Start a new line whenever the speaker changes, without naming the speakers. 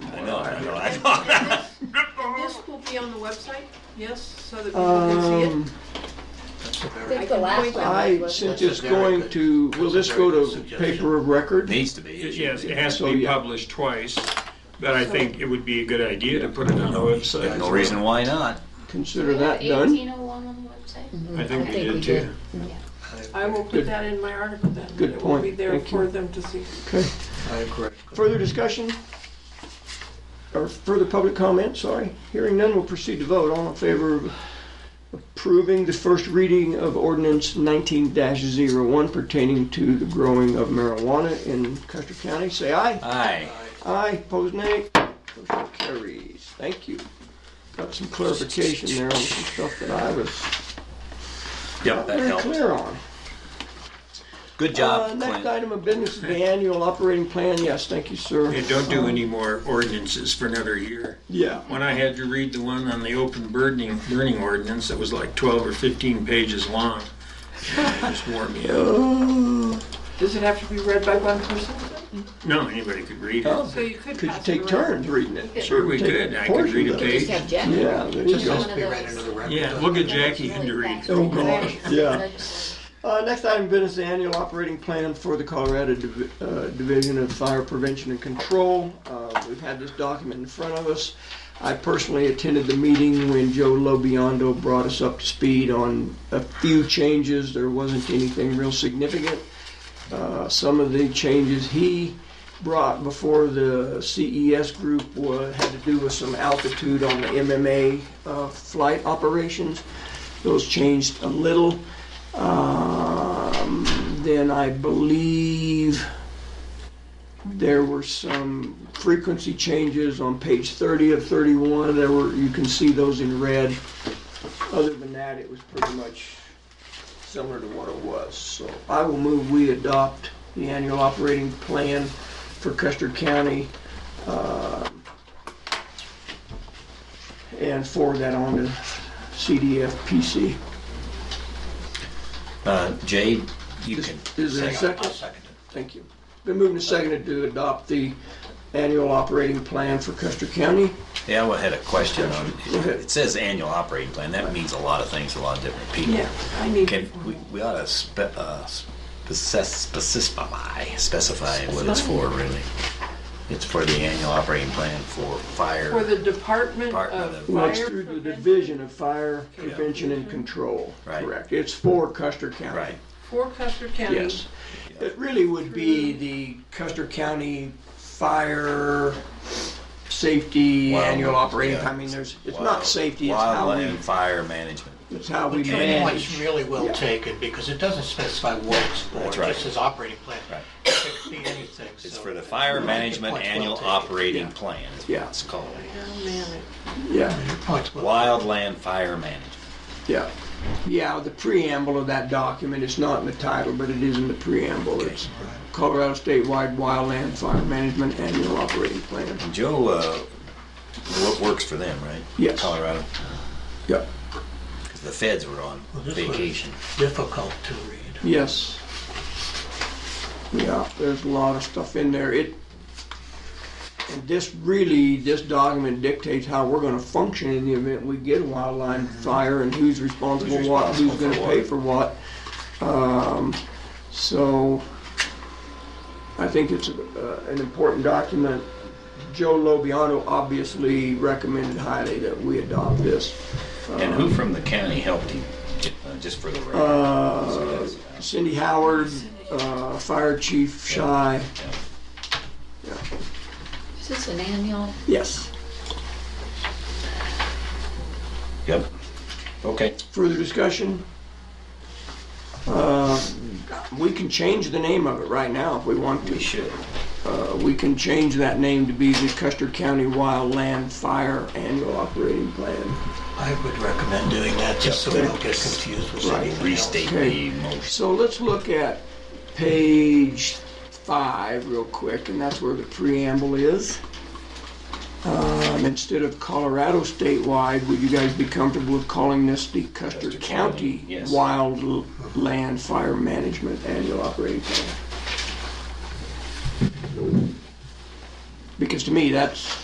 This this will be on the website, yes, so that people can
Um,
see
think the last one was,
I
wasn't it?
suggest going to, will this go to paper of record?
Needs to be.
It-
issued.
Yes, it has
So,
to be
Oh, yeah.
published twice, but I think it would be a good idea to put it on the website.
No reason why not.
Consider that done.
Eighteen oh one on the website?
I think we
think we
did too.
it. I will put
Good.
that in my article then. that
Good
It will
point.
be there
Thank you.
for them to see.
Okay.
I agree.
Further discussion? Or further public comment, sorry. Hearing none, we'll proceed to vote. All in favor of approving the first reading of ordinance 19-01 pertaining to the growing of marijuana in Custer County, say aye.
Aye.
Aye, opposed nay. Motion carries. Thank you. Got some clarification there on some stuff that I was
Yep, that
very
helps.
clear on.
Good
Uh,
job,
Next
Clint.
item of business is the annual operating plan. Yes, thank you, sir.
And don't do any more ordinances for another year.
Yeah.
When I had to read the one on the open burning, burning ordinance, it was like 12 or 15 pages long. It just wore me out. Oh.
Does it have to be read by one person?
No, anybody could read it.
Oh,
So you could
Could you
pass it
take
around.
turns reading it?
Sure we
Take
could. I could
portions
read a
of it.
page.
Just have Jeff.
Yeah, there you
Just
go.
one
Just
of
be read into
those.
the record.
Yeah, look at Jackie and to read.
Oh, gosh, yeah.
Legislative.
Uh, next item of business, the annual operating plan for the Colorado Div- uh, Division of Fire Prevention and Control. Uh, We've had this document in front of us. I personally attended the meeting when Joe Lobiondo brought us up to speed on a few changes. There wasn't anything real significant. Uh, Some of the changes he brought before the CES group wa- had to do with some altitude on the MMA uh, flight operations. Those changed a little. Um, then I believe there were some frequency changes on page 30 of 31. There were, you can see those in red. Other than that, it was pretty much similar to what it was. So I will move we adopt the annual operating plan for Custer County. um, And forward that on to CDFPC.
Uh, Jade, you can.
Is there a
second.
second?
Second.
Thank you. Been moved and seconded to adopt the annual operating plan for Custer County.
Yeah, I had a question on,
Go ahead.
it says annual operating plan. That means a lot of things to a lot of different people.
Yeah, I need.
Can, we, we ought to spe, uh, spec- specify, specify what it's for, really. It's for the annual operating plan for
For
fire,
the Department
Department
of
of-
Well, it's
Fire
through the
Prevention
Division of Fire Prevention and Control.
Right.
Correct. It's for Custer County.
right?
for Custer County.
Yes. It really would be the Custer County Fire Safety
Wild-
Annual Operating.
yeah.
Plan. I mean, there's, it's
Wild-
not safety, it's how we,
Wildland fire management.
it's how we
But your point's
manage.
really well taken, because it doesn't specify what it's for.
That's
It
right.
just says operating plan.
Right.
It could be anything, so.
It's for the fire management
Point's well
annual
taken.
operating plan. is what
Yeah.
It's called
Yeah.
Your point's Oh, well.
wildland fire management.
Yeah. Yeah, the preamble of that document, it's not in the title, but it is in the preamble. It's Colorado Statewide Wildland Fire Management Annual Operating Plan.
Joe, uh, wo- works for them, right?
Yes.
Colorado,
Yep.
'Cause the feds were on
Well, this was
vacation.
Difficult to read.
Yes. Yeah, there's a lot of stuff in there. It, and this really, this document dictates how we're gonna function in the event we get a wildland fire and who's responsible
Mm-hmm. Who's
for what, who's
responsible
gonna
for
pay
what.
for what. Um, so, I think it's, uh, an important document. Joe Lobiano obviously recommended highly that we adopt this.
And who from the county helped him, uh, just for the
Uh,
record? So that's-
Cindy Howard, uh, Fire Chief Shy.
yeah.
Is this an annual?
Yes.
Yep, okay.
Further discussion? Uh, We can change the name of it right now if we want
We
to.
should.
Uh, We can change that name to be the Custer County Wildland Fire Annual Operating Plan.
I would recommend doing that, just so we don't get confused with
Right.
anything else.
Restate
Okay.
the motion.
So let's look at page five real quick, and that's where the preamble is. Um, instead of Colorado statewide, would you guys be comfortable with calling this the Custer
Custer County,
County
yes.
Wildland Fire Management Annual Operating Plan? Because to me, that's